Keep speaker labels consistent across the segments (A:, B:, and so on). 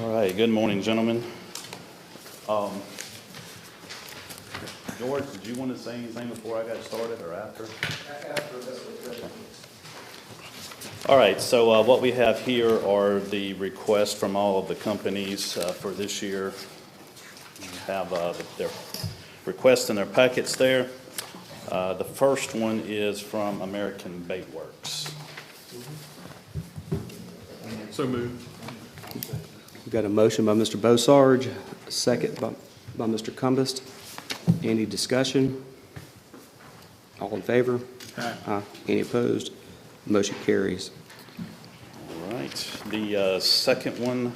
A: All right, good morning, gentlemen. Um, George, did you want to say anything before I got started or after? All right, so uh, what we have here are the requests from all of the companies uh, for this year. You Have uh, their requests in their packets there. Uh, The first one is from American Bait Works.
B: So moved.
C: We've got a motion by Mr. Bossarge, a second by, by Mr. Cumbest. Any discussion? All in favor? Aye. Any opposed? Motion carries.
A: All right, the uh, second one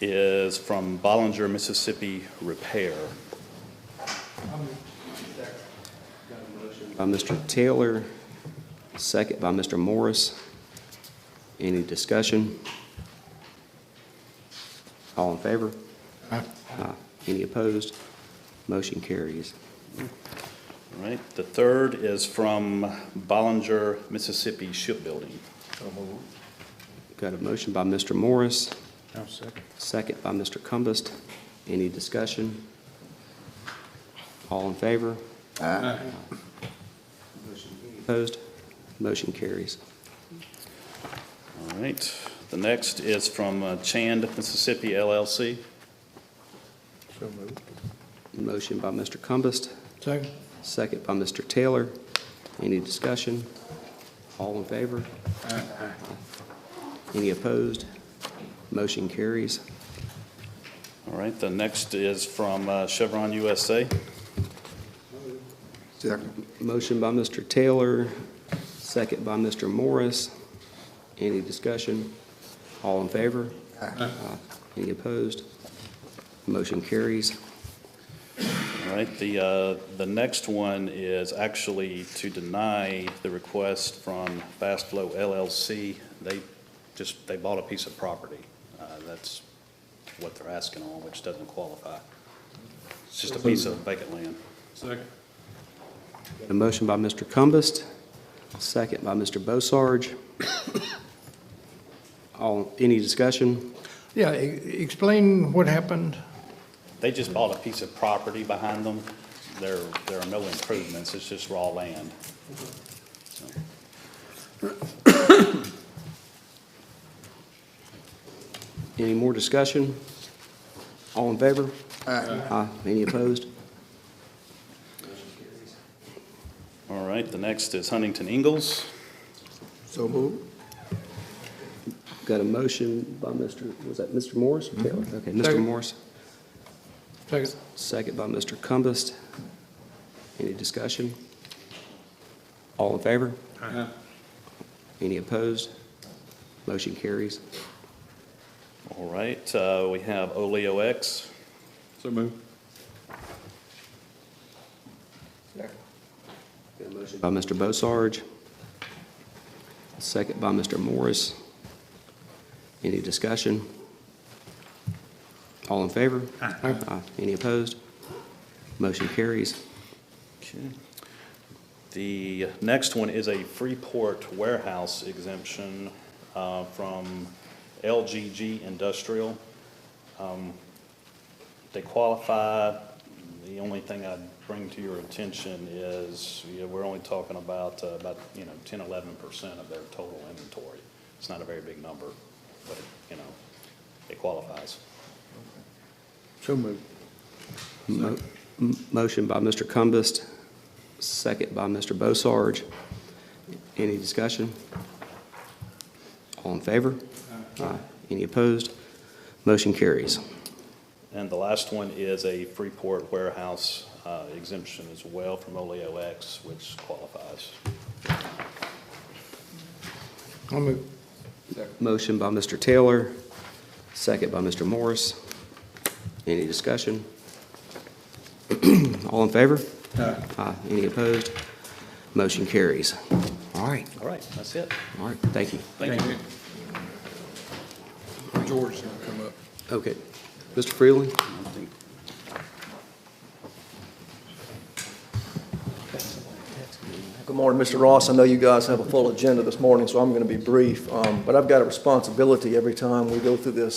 A: is from Bollinger, Mississippi Repair.
C: By Mr. Taylor, second by Mr. Morris. Any discussion? All in favor? Aye. Any opposed? Motion carries.
A: All right, the third is from Bollinger, Mississippi Shipbuilding.
C: Got a motion by Mr. Morris,
B: I'll second.
C: Second by Mr. Cumbest. Any discussion? All in favor? Opposed? Motion carries.
A: All right, the next is from uh, Chand, Mississippi LLC.
B: So moved.
C: Motion by Mr. Cumbest,
B: Second.
C: second by Mr. Taylor. Any discussion? All in favor? Any opposed? Motion carries.
A: All right, the next is from uh, Chevron USA.
C: Motion by Mr. Taylor, second by Mr. Morris. Any discussion? All in favor? Aye. Any opposed? Motion carries.
A: All right, the, uh, the next one is actually to deny the request from Fast Flow LLC. They just, they bought a piece of property. Uh, That's what they're asking on, which doesn't qualify. It's just a piece of vacant land.
B: Second.
C: A motion by Mr. Cumbest, second by Mr. Bossarge. All, any discussion?
D: Yeah, e- explain what happened.
A: They just bought a piece of property behind them. There, there are no improvements, it's just raw land.
C: Any more discussion? All in favor? Aye. Any opposed?
A: All right, the next is Huntington Ingalls.
B: So moved.
C: Got a motion by Mr., was that Mr. Morris or Taylor? Okay, Mr.
D: Second.
C: Morris.
D: Second.
C: Second by Mr. Cumbest. Any discussion? All in favor? Any opposed? Motion carries.
A: All right, uh, we have Oleo X.
B: So moved.
C: By Mr. Bossarge. Second by Mr. Morris. Any discussion? All in favor? Aye. Any opposed? Motion carries.
A: Okay. The next one is a Freeport warehouse exemption uh, from LGG Industrial. Um, They qualify, the only thing I'd bring to your attention is, you know, we're only talking about, uh, about, you know, 10, 11% of their total inventory. It's not a very big number, but, you know, it qualifies.
B: So moved.
C: Mo- m- Motion by Mr. Cumbest, second by Mr. Bossarge. Any discussion? All in favor? Aye. Any opposed? Motion carries.
A: And the last one is a Freeport warehouse uh, exemption as well from Oleo X, which qualifies.
D: I'll move.
C: Motion by Mr. Taylor, second by Mr. Morris. Any discussion? All in favor? Aye. Any opposed? Motion carries. All right,
A: All right, that's it.
C: all right, thank you.
A: Thank you.
B: George gonna come up.
C: Okay. Mr. Freeland?
E: Good morning, Mr. Ross. I know you guys have a full agenda this morning, so I'm going to be brief. Um, But I've got a responsibility every time we go through this